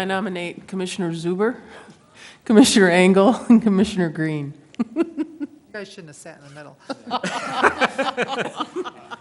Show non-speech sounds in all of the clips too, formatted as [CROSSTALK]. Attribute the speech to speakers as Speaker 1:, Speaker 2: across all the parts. Speaker 1: I nominate Commissioner Zuber, [LAUGHS] Commissioner Engel, and Commissioner Green.
Speaker 2: You guys shouldn't have sat in the middle.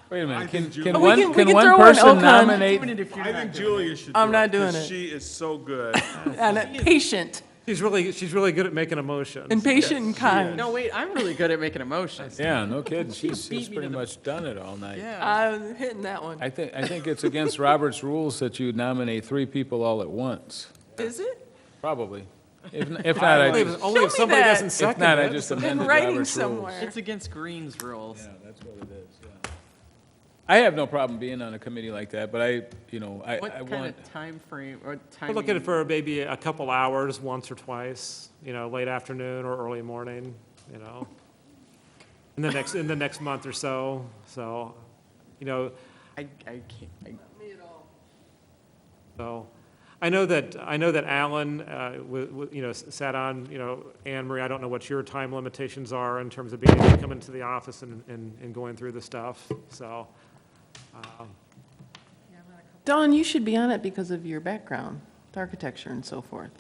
Speaker 3: Wait a minute, can,
Speaker 1: Oh,
Speaker 3: can
Speaker 1: we can-
Speaker 3: one,
Speaker 1: we
Speaker 3: can
Speaker 1: can
Speaker 3: one
Speaker 1: throw in
Speaker 3: person
Speaker 1: Okan.
Speaker 3: nominate?
Speaker 4: I think Julia should do it.
Speaker 1: I'm not doing
Speaker 4: 'cause
Speaker 1: it.
Speaker 4: She is so good.
Speaker 1: And uh, patient,
Speaker 5: She's really, she's really good at making a motion.
Speaker 1: and patient and kind.
Speaker 6: No, wait, I'm really good at making emotions.
Speaker 3: Yeah,
Speaker 6: [LAUGHS]
Speaker 3: no kidding, she's, she's
Speaker 6: beat me
Speaker 3: pretty
Speaker 6: to the-
Speaker 3: much done it all night.
Speaker 6: Yeah.
Speaker 1: I was hitting that one.
Speaker 3: I think, I think it's against Robert's rules that you nominate three people all at once,
Speaker 1: Is it?
Speaker 3: probably. If, n-
Speaker 1: [LAUGHS]
Speaker 3: if not, I
Speaker 5: Only
Speaker 3: just,
Speaker 5: if- only if
Speaker 1: Show me
Speaker 5: somebody
Speaker 1: that.
Speaker 5: doesn't
Speaker 3: if
Speaker 5: second
Speaker 3: not, I
Speaker 5: it.
Speaker 3: just
Speaker 1: In
Speaker 3: amended
Speaker 1: writing
Speaker 3: Robert's rules.
Speaker 1: somewhere.
Speaker 6: It's against Green's rules.
Speaker 3: Yeah, that's what it is, yeah. I have no problem being on a committee like that, but I, you know, I,
Speaker 6: What
Speaker 3: I
Speaker 6: kind
Speaker 3: want,
Speaker 6: of time frame or
Speaker 5: We're
Speaker 6: timing?
Speaker 5: looking for maybe a couple hours, once or twice, you know, late afternoon or early morning, you know, in the next, in the next month or so, so, you know,
Speaker 6: I, I can't. I,
Speaker 5: So, I know that, I know that Alan, uh, wa- wa- you know, s- sat on, you know, Anne Marie, I don't know what your time limitations are in terms of being able to come into the office and, and and going through the stuff, so.
Speaker 1: Don, you should be on it because of your background, with architecture and so forth.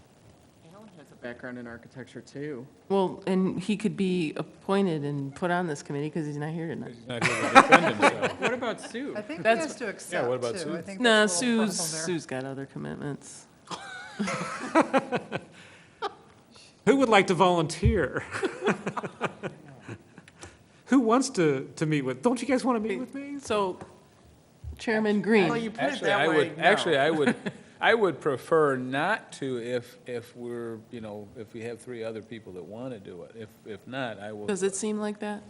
Speaker 6: Alan has a background in architecture too.
Speaker 1: Well, and he could be appointed and put on this committee because he's not here tonight.
Speaker 3: he's not here to defend himself.
Speaker 6: What about Sue?
Speaker 2: I think he
Speaker 1: That's-
Speaker 2: has to accept, too.
Speaker 3: what about Sue?
Speaker 2: I think
Speaker 1: No,
Speaker 2: that's a little
Speaker 1: Sue's,
Speaker 2: problem there.
Speaker 1: Sue's got other commitments.
Speaker 5: Who would like to volunteer? [LAUGHS] Who wants to, to meet with, don't you guys want to meet with me?
Speaker 1: So Chairman
Speaker 6: Well,
Speaker 1: Green,
Speaker 6: you put it
Speaker 3: Actually, I
Speaker 6: that way.
Speaker 3: would,
Speaker 6: no.
Speaker 3: actually, I would, I would prefer not to if, if we're, you know, if we have three other people that want to do it. If, if not, I
Speaker 1: [LAUGHS]
Speaker 3: will,
Speaker 1: does it seem like that?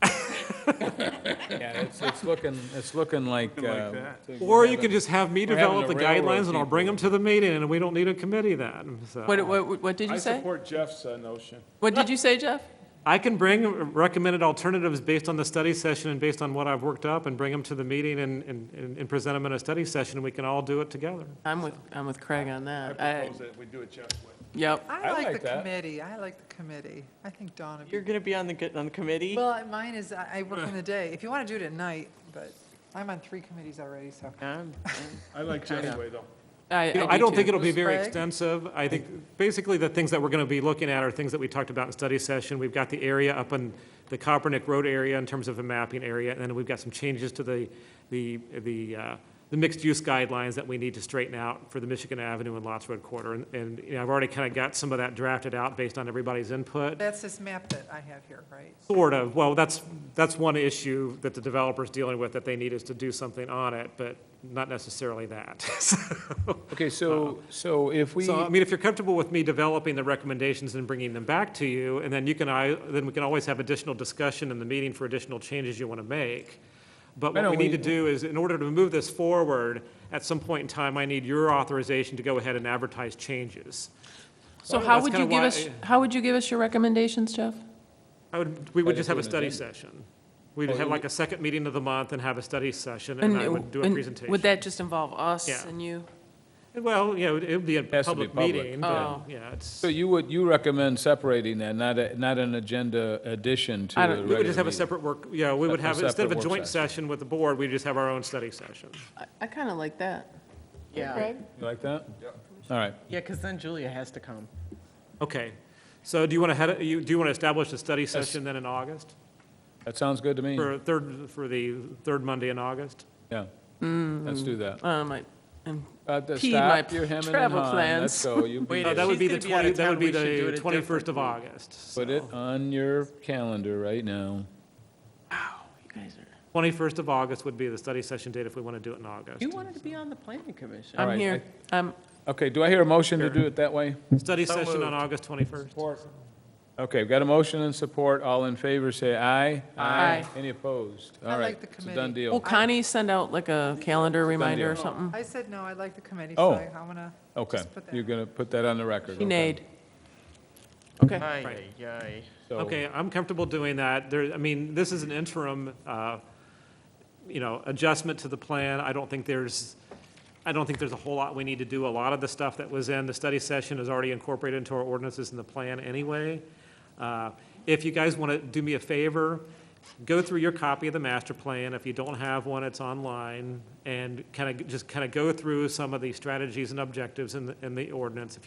Speaker 3: yeah, it's, it's looking, it's looking like. um,
Speaker 5: Or you can just have me
Speaker 3: we're having
Speaker 5: develop
Speaker 3: the
Speaker 5: the guidelines and I'll
Speaker 3: railroad
Speaker 5: bring them to the meeting and we don't need a committee then, so.
Speaker 1: What, what, what did
Speaker 4: Uh, I
Speaker 1: you say?
Speaker 4: support Jeff's uh, notion.
Speaker 1: What did you say, Jeff?
Speaker 5: I can bring recommended alternatives based on the study session and based on what I've worked up and bring them to the meeting and, and, and- and present them in a study session and we can all do it together.
Speaker 1: I'm with, I'm with Craig on
Speaker 4: I
Speaker 1: that. I,
Speaker 4: propose that we do it Jeff's way.
Speaker 1: yep.
Speaker 2: I
Speaker 3: I
Speaker 2: like
Speaker 3: like
Speaker 2: the
Speaker 3: that.
Speaker 2: committee, I like the committee. I think Dawn would
Speaker 6: You're
Speaker 2: be,
Speaker 6: gonna be on the good- on the committee.
Speaker 2: well, mine is, I I work in the day. If you want to do it at night, but I'm on three committees already, so.
Speaker 6: Um,
Speaker 4: I like Jeff's way, though.
Speaker 1: [LAUGHS] I,
Speaker 5: You know, I don't
Speaker 1: too.
Speaker 5: think it'll be
Speaker 2: Ms.
Speaker 5: very
Speaker 2: Sprague?
Speaker 5: extensive. I think, basically, the things that we're going to be looking at are things that we talked about in study session. We've got the area up in the Coppernick Road area in terms of a mapping area, and then we've got some changes to the, the, the, uh, the mixed-use guidelines that we need to straighten out for the Michigan Avenue and Lots Road corridor. And, and, you know, I've already kind of got some of that drafted out based on everybody's input.
Speaker 2: That's this map that I have here, right?
Speaker 5: Sort of. Well, that's, that's one issue that the developer's dealing with, that they need us to do something on it, but not necessarily that. [LAUGHS]
Speaker 3: Okay, so, so if we,
Speaker 5: So, I mean, if you're comfortable with me developing the recommendations and bringing them back to you, and then you can, I, then we can always have additional discussion in the meeting for additional changes you want to make. But
Speaker 3: Why
Speaker 5: what we
Speaker 3: don't
Speaker 5: need to
Speaker 3: we-
Speaker 5: do is, in order to move this forward, at some point in time, I need your authorization to go ahead and advertise changes.
Speaker 1: So
Speaker 5: Well,
Speaker 1: how
Speaker 5: that's
Speaker 1: would you
Speaker 5: kinda
Speaker 1: give
Speaker 5: why-
Speaker 1: us, how would you give us your recommendations, Jeff?
Speaker 5: I would, we
Speaker 3: Try
Speaker 5: would
Speaker 3: to
Speaker 5: just have
Speaker 3: do
Speaker 5: a
Speaker 3: an
Speaker 5: study
Speaker 3: agenda.
Speaker 5: session. We'd have like a second meeting of the month and have a study session, and
Speaker 1: And
Speaker 5: I
Speaker 1: it-
Speaker 5: would do a
Speaker 1: and
Speaker 5: presentation.
Speaker 1: Would that just involve us
Speaker 5: Yeah.
Speaker 1: and you?
Speaker 5: Well, you know, it would be a
Speaker 3: Has to be
Speaker 5: public
Speaker 3: public,
Speaker 1: yeah.
Speaker 5: meeting, but, yeah, it's,
Speaker 3: so you would, you recommend separating that, not a, not an agenda addition to
Speaker 1: I
Speaker 3: the
Speaker 1: don't-
Speaker 3: regular
Speaker 5: we would just have a
Speaker 3: meeting?
Speaker 5: separate work, yeah, we would
Speaker 3: A- a
Speaker 5: have, instead of a
Speaker 3: separate work
Speaker 5: joint
Speaker 3: session.
Speaker 5: session with the board, we'd just have our own study session.
Speaker 1: I, I kind of like that.
Speaker 6: yeah,
Speaker 3: You like that? Yeah. All right.
Speaker 6: yeah, because then Julia has to come.
Speaker 5: Okay, so do you want to head, you, do you want to establish a study session then in August?
Speaker 3: That sounds good to me.
Speaker 5: For third, for the third Monday in August?
Speaker 3: Yeah. Let's do that.
Speaker 1: Um, I, and
Speaker 3: Uh, the
Speaker 1: Impede my
Speaker 3: stop, your hemming and
Speaker 1: travel
Speaker 3: hawing.
Speaker 1: plans.
Speaker 3: Let's go. You beat
Speaker 6: Wait,
Speaker 5: No,
Speaker 3: it.
Speaker 5: that would
Speaker 6: she's
Speaker 5: be the
Speaker 6: gonna be out
Speaker 5: twenty,
Speaker 6: of
Speaker 5: that would
Speaker 6: town.
Speaker 5: be
Speaker 6: We should do it
Speaker 5: the
Speaker 6: a
Speaker 5: twenty-first of
Speaker 6: different
Speaker 5: August.
Speaker 3: Put it on your calendar right now.
Speaker 1: you guys are,
Speaker 5: Twenty-first of August would be the study session date if we want to do it in August.
Speaker 6: You wanted to be on the planning commission.
Speaker 3: All
Speaker 1: I'm
Speaker 3: right,
Speaker 1: here. Um,
Speaker 3: Okay, do I hear a motion to do it that way?
Speaker 5: Study session on August twenty-first.
Speaker 3: Okay, we've got a motion and support. All in favor, say aye.
Speaker 1: Aye.
Speaker 3: Any opposed?
Speaker 2: I
Speaker 3: All
Speaker 2: like
Speaker 3: right,
Speaker 2: the
Speaker 3: it's a done
Speaker 2: committee.
Speaker 1: will
Speaker 3: deal.
Speaker 1: Connie send out like a calendar reminder or
Speaker 3: deal.
Speaker 1: something?
Speaker 2: I said, no, I like the committee,
Speaker 3: Oh.
Speaker 2: so I want to
Speaker 3: Okay,
Speaker 2: just put that.
Speaker 3: you're going to put that on the record.
Speaker 1: She
Speaker 3: okay.
Speaker 1: neighed. Okay.
Speaker 6: Aye, aye, aye.
Speaker 3: So-
Speaker 5: Okay, I'm comfortable doing that. There, I mean, this is an interim, uh, you know, adjustment to the plan. I don't think there's, I don't think there's a whole lot we need to do. A lot of the stuff that was in the study session is already incorporated into our ordinances in the plan anyway. Uh, If you guys want to do me a favor go through your copy of the master plan. If you don't have one, it's online. And kind of, just kind of go through some of the strategies and objectives in the, in the ordinance. If you